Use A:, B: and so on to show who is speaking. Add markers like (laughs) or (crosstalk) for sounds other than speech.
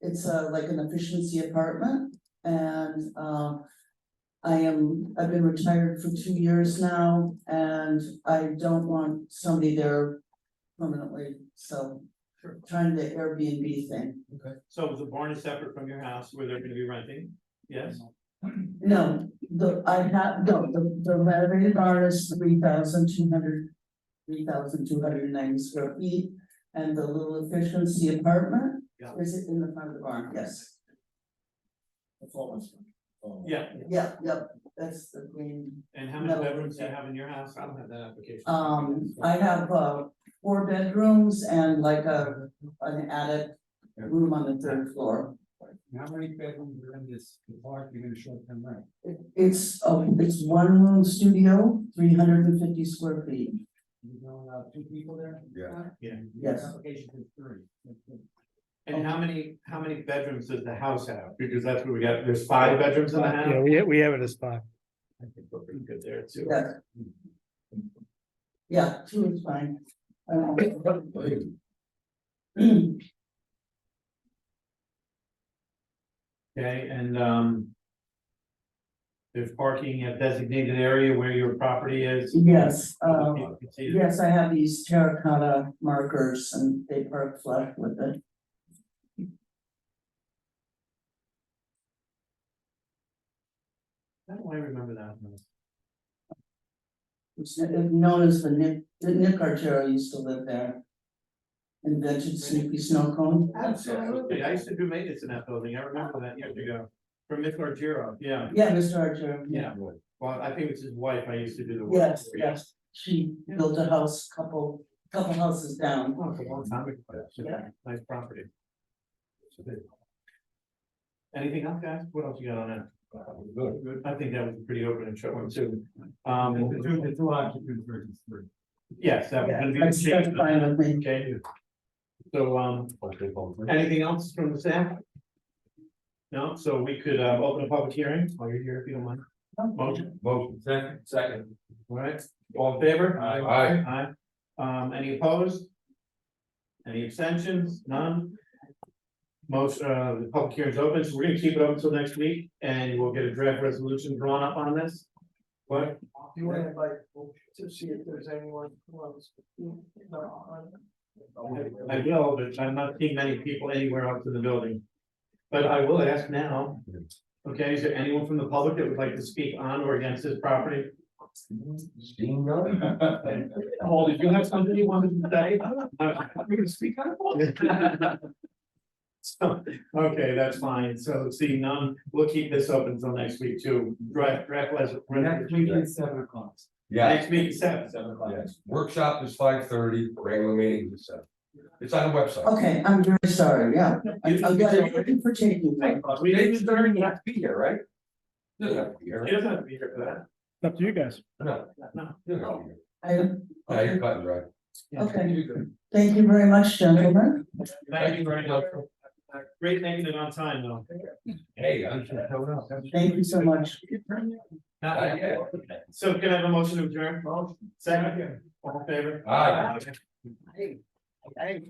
A: It's uh like an efficiency apartment and um. I am, I've been retired for two years now and I don't want somebody there permanently, so.
B: Sure.
A: Trying the Airbnb thing,
B: So the barn is separate from your house where they're gonna be renting, yes?
A: no, the, I have, no, the the renovated barn is three thousand two hundred. Three thousand two hundred and ninety square feet and the little efficiency apartment,
B: Yeah.
A: is it in the front of the barn, yes.
B: Yeah,
A: Yeah, yep, that's the green,
B: and how many
A: No.
B: bedrooms do you have in your house? I don't have that application.
A: um, I have, uh, four bedrooms and like a, an attic room on the third floor.
C: How many bedrooms are in this apartment in a short term rent?
A: It- It's, oh, it's one room studio, three hundred and fifty square feet,
C: You know, uh, two people there?
D: Yeah.
B: Yeah.
A: Yes.
C: Application is three.
B: And how many, how many bedrooms does the house have? Because that's what we got, there's five bedrooms in the house?
E: Yeah, we, we have it as five.
B: I think we're pretty good there too.
A: yeah. Yeah, two is fine. Um, I won't-
B: Okay, and um. There's parking at designated area where your property is.
A: (clears throat) Yes, um,
B: You can see it.
A: yes, I have these terracotta markers and they park flush with it.
B: How do I remember that?
A: It's kn- known as the Nick, the Nick Argero used to live there. Invented Snoopy Snow Cone.
B: Absolutely, I used to do maintenance in that building, I remember that years ago, from Miss Margiro, yeah,
A: Yeah, Mr. Argero.
B: yeah. Well, I think it's his wife, I used to do the work.
A: Yes,
B: for.
A: yes, she built a house, couple, couple houses down.
B: Oh, it's a long time ago, that's
A: Yeah.
B: a nice property. Anything else, guys, what else you got on that? Good. I think that was pretty open and short one too,
C: The two,
B: um,
C: the two occupants versus three.
B: yes, that was gonna be.
A: Yeah, That's that's fine with me.
B: Okay. So, um, anything else from the staff? No, so we could, uh, open a public hearing, while you're here, if you don't mind, motion?
D: Motion. Second. Second.
B: All right, all in favor?
D: Aye. Aye.
B: Aye. Um, any opposed? Any abstentions? None? Most, uh, the public hearing's open, so we're gonna keep it open until next week, and we'll get a draft resolution drawn up on this. What?
C: Do you wanna invite to see if there's anyone who wants?
B: I will, but I'm not seeing many people anywhere else in the building. But I will ask now, okay, is there anyone from the public that would like to speak on or against this property? Paul, did you have something you wanted to say? I'm gonna speak out. So, okay, that's fine. So see, none, we'll keep this open until next week too. Draft, draft les.
C: Next week at seven o'clock.
D: (laughs) Yeah,
B: Next meeting, seven.
C: Seven o'clock.
D: yes, workshop is five thirty, regular meeting is seven. It's on the website.
A: Okay, I'm very sorry, yeah.
B: You-
A: I'm glad for taking me.
B: We
D: David's
B: didn't,
D: there, you have to be here, right? Doesn't have to be here.
B: he doesn't have to be here for
E: Up to you guys.
D: No,
B: that. No.
D: doesn't have to be here.
A: I,
D: Yeah, you're cutting right.
A: okay, thank you very much, gentlemen.
B: Thank you very much. Great making it on time though.
D: Hey, I'm just showing up.
A: Thank you so much.
D: Not yet.
B: So can I have a motion to adjourn? Second, all in favor?
D: Aye.
B: Okay.